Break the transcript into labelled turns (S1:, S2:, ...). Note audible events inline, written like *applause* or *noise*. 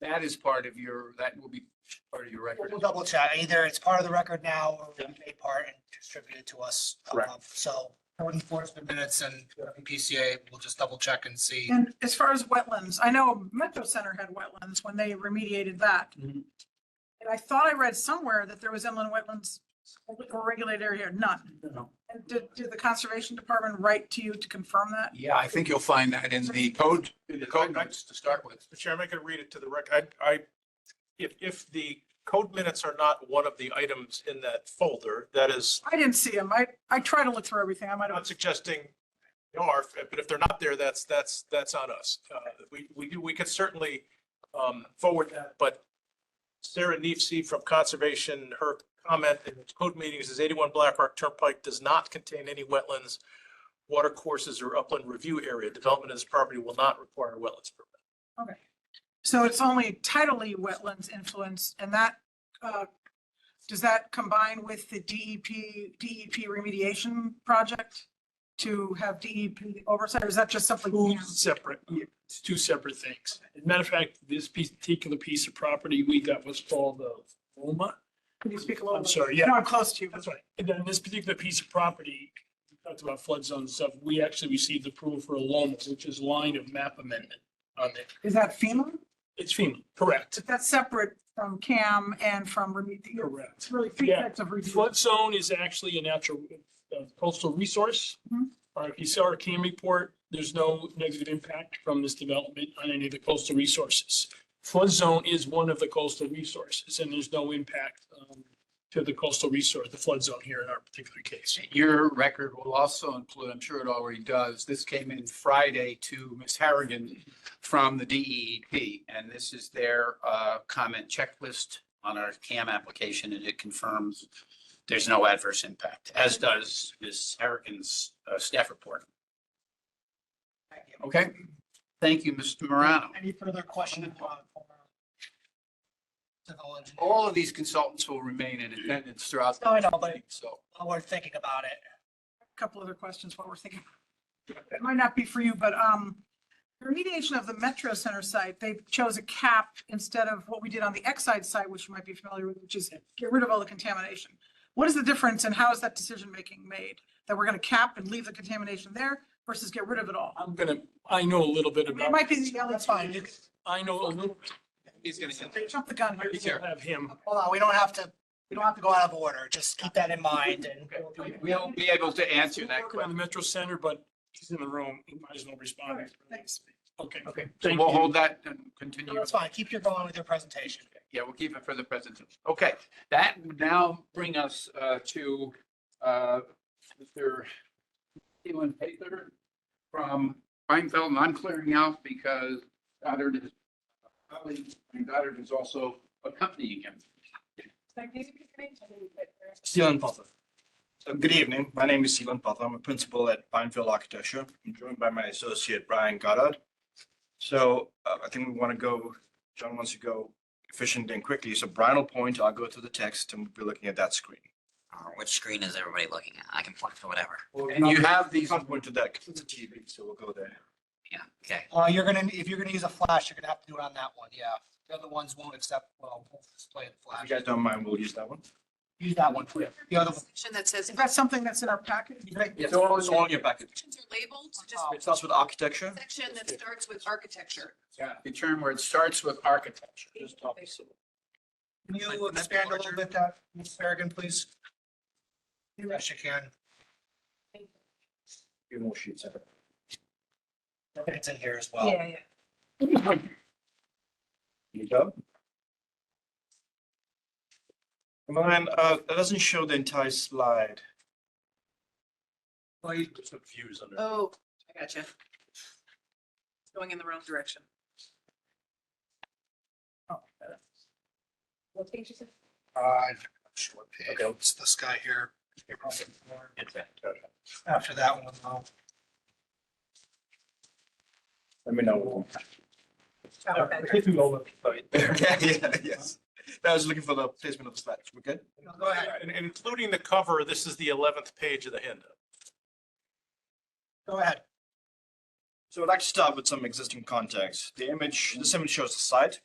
S1: that is part of your, that will be part of your record.
S2: We'll double check. Either it's part of the record now or we made part and distributed to us.
S1: Correct.
S2: Um, So code enforcement minutes and PCA, we'll just double check and see.
S3: And as far as wetlands, I know Metro Center had wetlands when they remediated that.
S1: Mhm.
S3: And I thought I read somewhere that there was inland wetlands or regulated area, none.
S1: No.
S3: And did, did the conservation department write to you to confirm that?
S1: Yeah, I think you'll find that in the code, in the code notes to start with.
S4: Mr. Chairman, I can read it to the record. I, I, if, if the code minutes are not one of the items in that folder, that is,
S3: I didn't see them. I, I try to look through everything. I might
S4: I'm not
S3: have,
S4: suggesting they are, but if they're not there, that's, that's, that's on us. Uh, we, we do, we could certainly, um, forward that, but Sarah Neefsey from Conservation, her comment in the code meetings is eighty-one Black Rock Turnpike does not contain any wetlands, water courses or upland review area. Development of this property will not require a wetlands permit.
S3: so it's only tidally wetlands influence and that, uh, does that combine with the E DEP, DEP remediation project to have DEP oversight? Or is that just something?
S5: Two separate, it's two separate things. As a matter of fact, this piece, particular piece of property we got was called the Loma.
S3: Can you speak a little?
S5: I'm
S3: bit?
S5: sorry, yeah,
S3: No, I'm close to you.
S5: that's right. And then this particular piece of property, we talked about flood zone and stuff, we actually received approval for a Loma, which is line of map amendment on it.
S3: Is that FEMA?
S5: It's FEMA, correct,
S3: That's separate from CAM and from remediation.
S5: correct.
S3: It's really three
S5: Yeah.
S3: types of review.
S5: Flood zone is actually a natural uh, coastal resource.
S3: Mhm.
S5: Or if you saw our CAM report, there's no negative impact from this development on any of the coastal resources. Flood zone is one of the coastal resources and there's no impact um, to the coastal resource, the flood zone here in our particular case.
S1: Your record will also include, I'm sure it already does, this came in Friday to Ms. Harrigan from the DEEP, and this is their uh, comment checklist on our CAM application, and it confirms there's no adverse impact, as does Ms. Harrigan's uh, staff report. Okay, thank you, Mr. Morano.
S2: Any further questions? uh, for Technology.
S1: All of these consultants will remain in attendance throughout. the
S2: No, I know, but-
S1: So,
S2: While we're thinking about it.
S3: Couple other questions while we're thinking. It might not be for you, but, um, the remediation of the Metro Center site, they chose a cap instead of what we did on the Exide site, which you might be familiar with, which is get rid of all the contamination. What is the difference and how is that decision-making made? That we're gonna cap and leave the contamination there versus get rid of it all?
S5: I'm gonna, I know a little bit
S3: It
S5: about,
S3: might be the other
S2: That's fine.
S3: side.
S2: You can-
S5: I know a little,
S1: he's going to.
S3: They jumped the gun here.
S5: I will have him.
S2: Hold on, we don't have to, we don't have to go out of order. Just keep that in
S1: *laughs*
S2: mind and.
S1: We'll be able to answer
S5: We're
S1: that
S5: working
S1: question.
S5: On the Metro Center, but he's in the room, he might as well respond.
S3: Thanks.
S5: Okay.
S1: Okay, so
S5: Thank
S1: we'll
S5: you.
S1: hold that and continue.
S2: No, it's fine. Keep your going with your presentation.
S1: Yeah, we'll keep it for the presentation. Okay, that would now bring us uh, to uh, Mr. Keelan Pater from Reinfeld, and I'm clearing out because Goddard is, colleague Goddard is also accompanying him.
S6: Steven Puffer. So good evening. My name is Steven Puffer. I'm a principal at Pinefield Architecture. I'm joined by my associate Brian Goddard. So uh, I think we want to go, John wants to go efficient and quickly. So Brian will point, I'll go through the text and we'll be looking at that screen.
S7: Uh, which screen is everybody looking at? I can point to whatever.
S1: And you have
S6: You
S1: these,
S6: can't point to that because it's a TV, so we'll go there.
S7: Yeah, okay.
S2: Uh, you're gonna, if you're gonna use a flash, you're gonna have to do it on that one, yeah. The other ones won't accept, well, won't display the
S6: If
S2: flash.
S6: you guys don't mind, we'll use that one.
S2: Use that one, please. The other, one-
S8: section that says
S3: Is that something that's in our package?
S6: It's all it's all in your packet.
S8: sections are labeled, just
S2: Oh.
S6: It starts with architecture.
S8: section that starts with architecture.
S1: yeah, the term where it starts with architecture.
S2: can you expand a little bit that, Ms. Farragon, please? Yes, you can.
S6: Few more sheets.
S2: It's in here as well.
S3: yeah.
S6: Here you go. Come on, uh, that doesn't show the entire slide.
S8: Oh, I gotcha. It's Going in the wrong direction.
S2: Uh, sure, page. it's this guy here. After that one, though.
S6: Let me *laughs* know. Yeah, yeah, yes. I was looking for the placement of the slides. We're good?
S2: Go ahead.
S4: And and including the cover, this is the eleventh page of the handout.
S2: Go ahead.
S6: So I'd like to start with some existing context. The image, this image shows the site.